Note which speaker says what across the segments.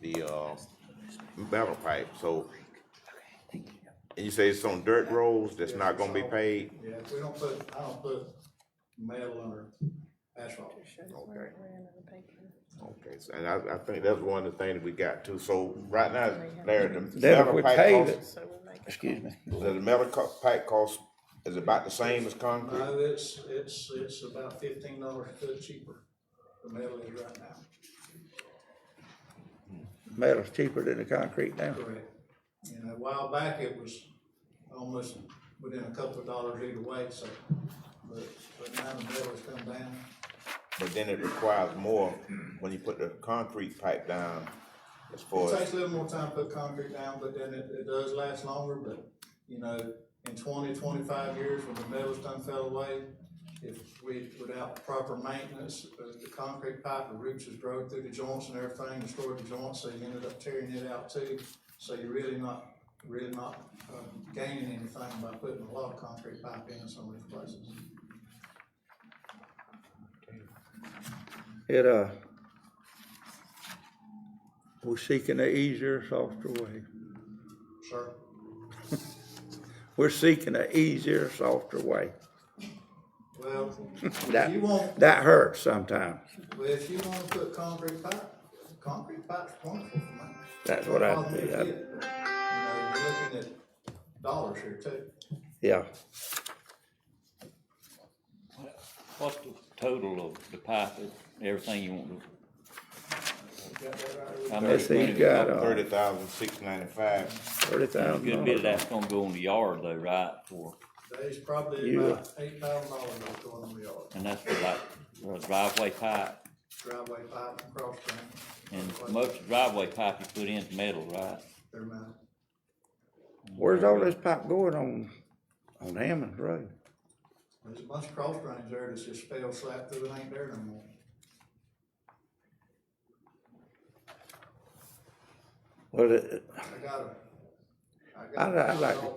Speaker 1: the, uh, battle pipe, so. And you say it's on dirt roads that's not gonna be paid?
Speaker 2: Yeah, we don't put, I don't put metal under asphalt.
Speaker 1: Okay. Okay, so, and I, I think that's one of the things we got too, so right now, Larry, the
Speaker 3: Then if
Speaker 1: metal
Speaker 3: we
Speaker 1: pipe
Speaker 3: pave
Speaker 1: costs,
Speaker 3: it, excuse me,
Speaker 1: the metal co- pipe cost is about the same as concrete?
Speaker 2: No, Uh, it's, it's, it's about fifteen dollars a foot cheaper, the metal is right now,
Speaker 3: metal's cheaper than the concrete now.
Speaker 2: correct? And a while back, it was almost within a couple of dollars either way, so, but, but now the metal's come down.
Speaker 1: But then it requires more when you put the concrete pipe down as
Speaker 2: It
Speaker 1: far as,
Speaker 2: takes a little more time to put concrete down, but then it, it does last longer, but, you know, in 20, 25 years, when the metal's done fell away, if we, without proper maintenance, uh, the concrete pipe, the roots is drove through the joints and everything, destroyed the joints, so you ended up tearing it out too. So you're really not, really not, um, gaining anything by putting a lot of concrete pipe in some of these places.
Speaker 3: It, uh, we're seeking an easier, softer way.
Speaker 2: Sir,
Speaker 3: We're seeking an easier, softer way.
Speaker 2: well, if you want,
Speaker 3: That, that hurts sometimes.
Speaker 2: Well, if you wanna put concrete pipe, concrete pipe's wonderful for me.
Speaker 3: That's what I
Speaker 2: Problem
Speaker 3: do.
Speaker 2: is, yeah,
Speaker 3: I-
Speaker 2: You know, you're looking at dollars here too.
Speaker 3: Yeah,
Speaker 4: What's the total of the pipe, and everything you want to?
Speaker 2: You got that right?
Speaker 4: how
Speaker 3: let's
Speaker 4: much
Speaker 3: see,
Speaker 4: money-
Speaker 3: you got, uh,
Speaker 1: thirty thousand six ninety-five.
Speaker 3: thirty thousand
Speaker 4: Good bit
Speaker 3: dollars.
Speaker 4: of that's gonna go in the yard though, right, for,
Speaker 2: There's probably
Speaker 3: You-
Speaker 2: about eight thousand dollars that's going on the yard,
Speaker 4: and that's for like for a driveway pipe,
Speaker 2: driveway pipe and cross drain.
Speaker 4: and most driveway pipe you put in's metal, right?
Speaker 2: They're mine.
Speaker 3: Where's all this pipe going on, on Hammond Road?
Speaker 2: There's a bunch of cross drains there that's just fell slap through, it ain't there no more.
Speaker 3: Well, it-
Speaker 2: I got a. I
Speaker 3: I'd,
Speaker 2: got a-
Speaker 3: I'd like to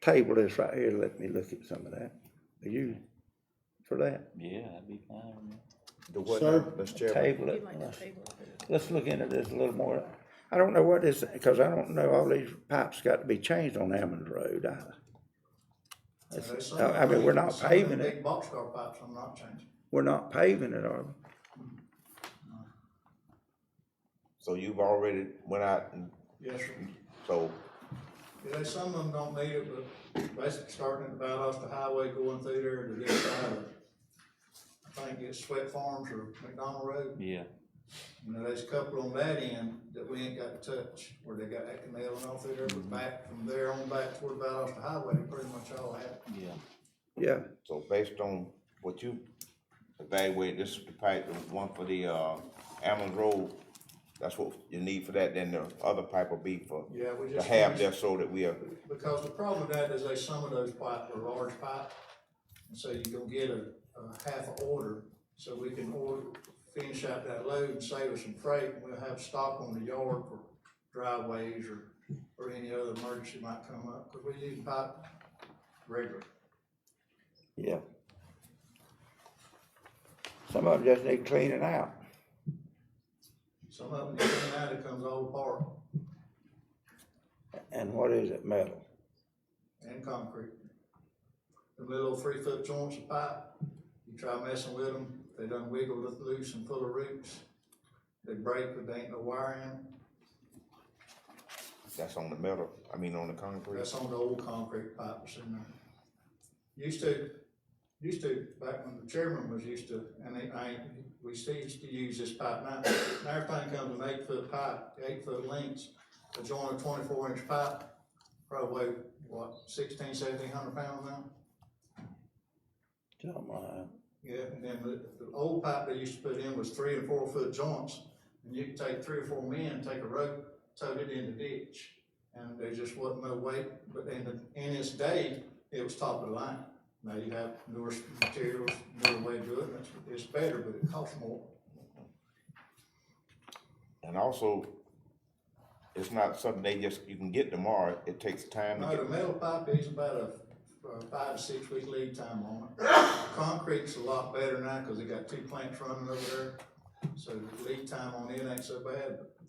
Speaker 3: table this right here, let me look at some of that. Are you for that?
Speaker 4: Yeah, that'd be fine.
Speaker 1: The what now, Mr. Chairman?
Speaker 3: Table it. Let's- Let's look into this a little more. I don't know what this, because I don't know, all these pipes got to be changed on Hammond Road. I-
Speaker 2: There's
Speaker 3: it's-
Speaker 2: some-
Speaker 3: I, I mean, we're not
Speaker 2: uh, some of them
Speaker 3: paving it,
Speaker 2: Big boxcar pipes, I'm not changing.
Speaker 3: we're not paving it, are we?
Speaker 1: So you've already went out and,
Speaker 2: Yes, sir.
Speaker 1: so,
Speaker 2: Yeah, they- some of them don't need it, but basically starting at about off the highway going through there to this side of, I think it's Sweat Farms or McDonald Road.
Speaker 4: Yeah,
Speaker 2: You know, there's a couple on that end that we ain't got to touch, where they got that canal and all through there, but back from there on back toward about off the highway, they pretty much all have.
Speaker 4: yeah.
Speaker 3: Yeah,
Speaker 1: so based on what you evaluated, this is the pipe, the one for the, uh, Allen Road, that's what you need for that, then the other pipe will be for,
Speaker 2: Yeah, we
Speaker 1: to
Speaker 2: just.
Speaker 1: have there so that we are,
Speaker 2: Because the problem with that is they, some of those pipe are large pipe, and so you gonna get a, a half a order, so we can order, finish out that load and save us some freight, and we'll have stock on the yard for driveways or, or any other emergency might come up, cause we use pipe regularly.
Speaker 3: yeah. Some of them just need cleaning out.
Speaker 2: Some of them, get in and out, it comes all apart,
Speaker 3: And what is it, metal?
Speaker 2: and concrete. The little three-foot joints of pipe, you try messing with them, they done wiggle it loose and full of roots. They break, but they ain't no wire in 'em.
Speaker 1: that's on the metal, I mean, on the concrete.
Speaker 2: That's on the old concrete pipes in there. Used to, used to, back when the chairman was used to, and they, I, we still used to use this pipe now. Now everything comes with eight foot pipe, eight foot lengths, a joint of twenty-four inch pipe, probably, what, sixteen, seventeen hundred pounds now?
Speaker 3: Something like that.
Speaker 2: Yeah, and then the, the old pipe they used to put in was three and four foot joints, and you could take three or four men, take a rope, tow it in the ditch. And there just wasn't no weight, but in the, in its day, it was top of the line. Now you have newer materials, newer way to do it, and it's, it's better, but it costs more.
Speaker 1: And also, it's not something they just, you can get tomorrow, it takes time to
Speaker 2: Now, the
Speaker 1: get,
Speaker 2: metal pipe is about a, a five to six week lead time on it. Concrete's a lot better now, cause they got two plants running over there, so the lead time on it ain't so bad, but